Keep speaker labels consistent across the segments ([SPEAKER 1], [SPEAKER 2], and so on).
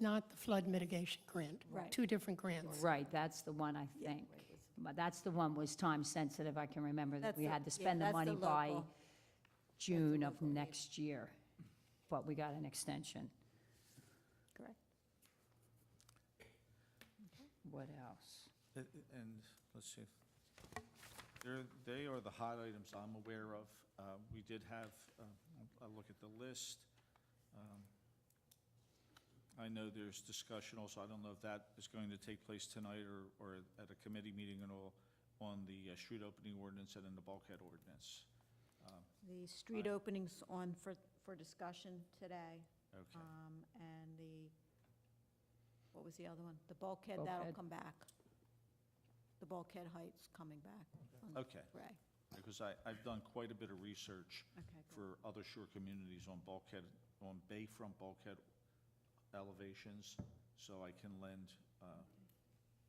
[SPEAKER 1] not the flood mitigation grant.
[SPEAKER 2] Right.
[SPEAKER 1] Two different grants.
[SPEAKER 3] Right, that's the one, I think. But That's the one was time-sensitive, I can remember that
[SPEAKER 2] That's
[SPEAKER 3] we
[SPEAKER 2] the-
[SPEAKER 3] had to
[SPEAKER 2] yeah,
[SPEAKER 3] spend the
[SPEAKER 2] that's the
[SPEAKER 3] money by
[SPEAKER 2] local.
[SPEAKER 3] June of next year, but we got an extension.
[SPEAKER 2] Correct.
[SPEAKER 3] What else?
[SPEAKER 4] Uh, uh, And, let's see, they're, they are the hot items I'm aware of. Uh, We did have, uh, I'll I'll look at the list. Um, I know there's discussion also, I don't know if that is going to take place tonight or, or at a committee meeting and all, on the uh, street opening ordinance and in the bulkhead ordinance. Um,
[SPEAKER 2] The street
[SPEAKER 4] Right.
[SPEAKER 2] opening's on for, for discussion today,
[SPEAKER 4] Okay,
[SPEAKER 2] um, and the, what was the other one? The bulkhead, that'll
[SPEAKER 3] Bulkhead.
[SPEAKER 2] come back. The bulkhead height's coming back on
[SPEAKER 4] okay,
[SPEAKER 2] Ray.
[SPEAKER 4] because I, I've done quite a bit of research
[SPEAKER 2] Okay, good.
[SPEAKER 4] for other shore communities on bulkhead, on bayfront bulkhead elevations, so I can lend, uh,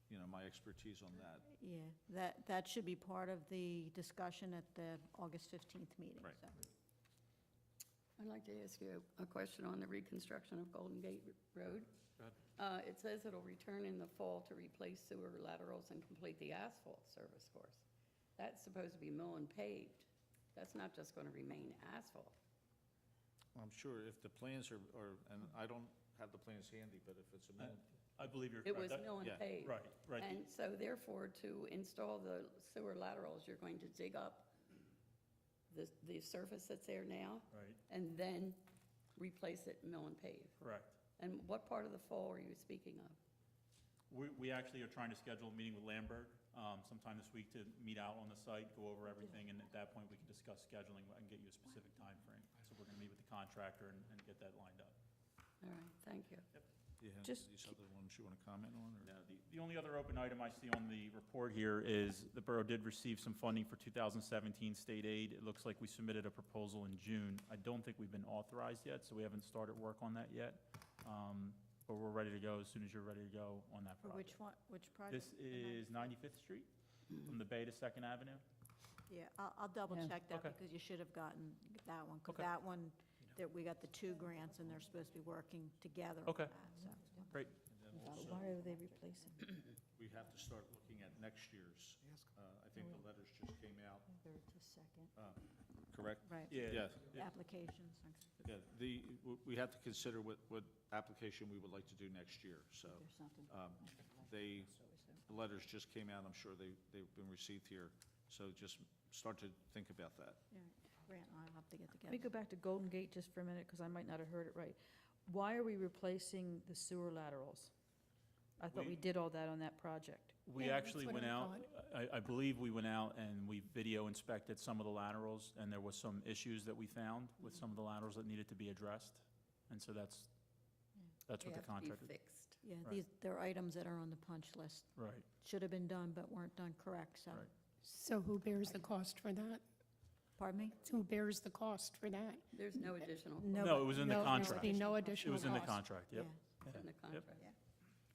[SPEAKER 4] you know, my expertise on that.
[SPEAKER 2] Yeah, that, that should be part of the discussion at the August 15th meeting,
[SPEAKER 4] Right.
[SPEAKER 2] so.
[SPEAKER 5] I'd like to ask you a question on the reconstruction of Golden Gate Road. Uh, It says it'll return in the fall to replace sewer laterals and complete the asphalt service course. That's supposed to be mill and paved. That's not just going to remain asphalt.
[SPEAKER 4] I'm sure if the plans are, are, and I don't have the plans handy, but if it's a,
[SPEAKER 6] I believe you're
[SPEAKER 5] It was
[SPEAKER 6] correct. That-
[SPEAKER 5] mill and
[SPEAKER 4] yeah,
[SPEAKER 5] paved.
[SPEAKER 6] Right, right.
[SPEAKER 5] And so therefore, to install the sewer laterals, you're going to dig up the, the surface that's there now
[SPEAKER 6] Right,
[SPEAKER 5] and then replace it mill and paved.
[SPEAKER 6] correct.
[SPEAKER 5] And what part of the fall are you speaking of?
[SPEAKER 6] We, we actually are trying to schedule a meeting with Lambert um, sometime this week to meet out on the site, go over everything, and at that point, we can discuss scheduling and get you a specific time frame. So we're gonna meet with the contractor and, and get that lined up.
[SPEAKER 5] All right, thank you.
[SPEAKER 4] yeah,
[SPEAKER 2] Just-
[SPEAKER 4] these other ones you want to comment on, or?
[SPEAKER 6] No, the, the only other open item I see on the report here is the borough did receive some funding for 2017 state aid. It looks like we submitted a proposal in June. I don't think we've been authorized yet, so we haven't started work on that yet. Um, But we're ready to go as soon as you're ready to go on that
[SPEAKER 2] For
[SPEAKER 6] project.
[SPEAKER 2] which one, which project?
[SPEAKER 6] This
[SPEAKER 2] The nine-
[SPEAKER 6] is 95th Street, from the Bay to Second Avenue?
[SPEAKER 2] Yeah, I'll, I'll double
[SPEAKER 3] Yeah.
[SPEAKER 2] check that
[SPEAKER 6] Okay.
[SPEAKER 2] because you should have gotten that one. 'cause
[SPEAKER 6] Okay.
[SPEAKER 2] that one, that we got the two grants and they're supposed to be working together on
[SPEAKER 6] Okay.
[SPEAKER 2] that, so.
[SPEAKER 6] Great.
[SPEAKER 4] And then
[SPEAKER 7] Uh,
[SPEAKER 4] also,
[SPEAKER 2] Why are they replacing?
[SPEAKER 4] we have to start looking at next year's. Uh, I think the letters just came out, uh,
[SPEAKER 2] second.
[SPEAKER 4] correct?
[SPEAKER 2] Right,
[SPEAKER 4] Yeah,
[SPEAKER 2] applications.
[SPEAKER 4] yeah, the, w- we have to consider what, what application we would like to do next year, so.
[SPEAKER 3] There's nothing.
[SPEAKER 4] um, They, the letters just came out, I'm sure they, they've been received here, so just start to think about that.
[SPEAKER 2] All right, Grant and I'll have to get
[SPEAKER 7] Let me
[SPEAKER 2] together.
[SPEAKER 7] go back to Golden Gate just for a minute, because I might not have heard it right. Why are we replacing the sewer laterals? I thought we
[SPEAKER 6] We-
[SPEAKER 7] did all that on that project.
[SPEAKER 6] We
[SPEAKER 1] Yeah,
[SPEAKER 6] actually
[SPEAKER 1] that's what
[SPEAKER 6] went
[SPEAKER 1] I
[SPEAKER 6] out, I, I believe we went out and we video inspected some of the laterals, and there was some issues that we found with some of the laterals that needed to be addressed. And so that's, that's what the contractor,
[SPEAKER 5] They have to be fixed.
[SPEAKER 2] Yeah,
[SPEAKER 6] Right.
[SPEAKER 2] these, they're items that are on the punch list.
[SPEAKER 6] right.
[SPEAKER 2] Should have been done, but weren't done correct, so.
[SPEAKER 6] Right.
[SPEAKER 1] So who bears the cost for that?
[SPEAKER 2] Pardon me?
[SPEAKER 1] Who bears the cost for that?
[SPEAKER 5] There's no additional
[SPEAKER 6] No, it was in the
[SPEAKER 1] No, There would
[SPEAKER 6] contract.
[SPEAKER 1] be no
[SPEAKER 6] It
[SPEAKER 1] additional
[SPEAKER 6] was
[SPEAKER 1] cost.
[SPEAKER 6] in the contract, yep.
[SPEAKER 5] cost in the contract.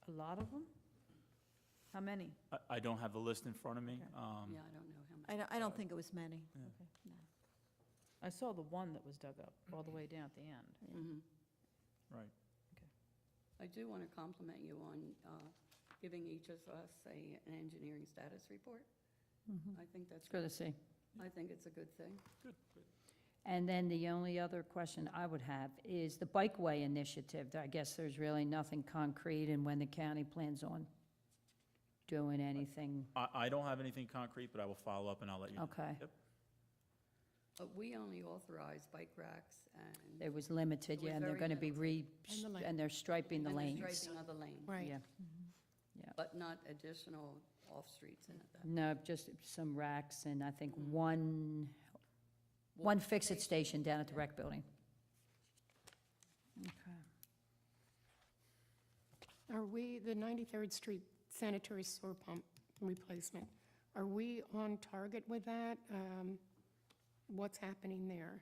[SPEAKER 7] A lot of them? How many?
[SPEAKER 6] I, I don't have the list in front of me.
[SPEAKER 7] Okay.
[SPEAKER 6] Um,
[SPEAKER 5] Yeah, I don't know how much.
[SPEAKER 2] I don't, I don't think it was many.
[SPEAKER 7] I saw the one that was dug up all the way down at the end.
[SPEAKER 5] Mhm.
[SPEAKER 6] Right.
[SPEAKER 7] Okay.
[SPEAKER 5] I do want to compliment you on uh, giving each of us a, an engineering status report. I think
[SPEAKER 3] Mm-hmm.
[SPEAKER 5] that's,
[SPEAKER 3] It's good to see.
[SPEAKER 5] I think it's a good thing.
[SPEAKER 3] And then the only other question I would have is the bikeway initiative. I guess there's really nothing concrete and when the county plans on doing anything.
[SPEAKER 6] I, I don't have anything concrete, but I will follow up and I'll let you know.
[SPEAKER 3] Okay.
[SPEAKER 6] Yep.
[SPEAKER 5] But Uh, we only authorize bike racks and.
[SPEAKER 3] It was limited,
[SPEAKER 5] It was
[SPEAKER 3] yeah, and they're
[SPEAKER 5] very
[SPEAKER 3] going to be re,
[SPEAKER 1] And the lane.
[SPEAKER 3] and they're striping the
[SPEAKER 5] and
[SPEAKER 3] lanes.
[SPEAKER 5] Striping of the lane,
[SPEAKER 1] Right.
[SPEAKER 3] Yeah.
[SPEAKER 5] but not additional off-streets and that.
[SPEAKER 3] No, just some racks and I think one, one fix-it station down at the rec building. Okay.
[SPEAKER 1] Are we, the 93rd Street sanitary sewer pump replacement, are we on target with that? Um, What's happening there?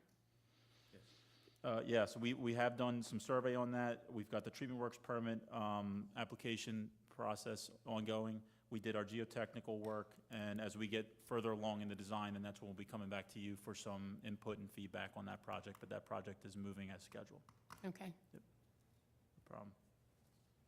[SPEAKER 6] Uh, Yeah, so we, we have done some survey on that. We've got the treatment works permit um, application process ongoing. We did our geotechnical work, and as we get further along in the design, then that's when we'll be coming back to you for some input and feedback on that project, but that project is moving as scheduled.
[SPEAKER 1] Okay.
[SPEAKER 6] No problem.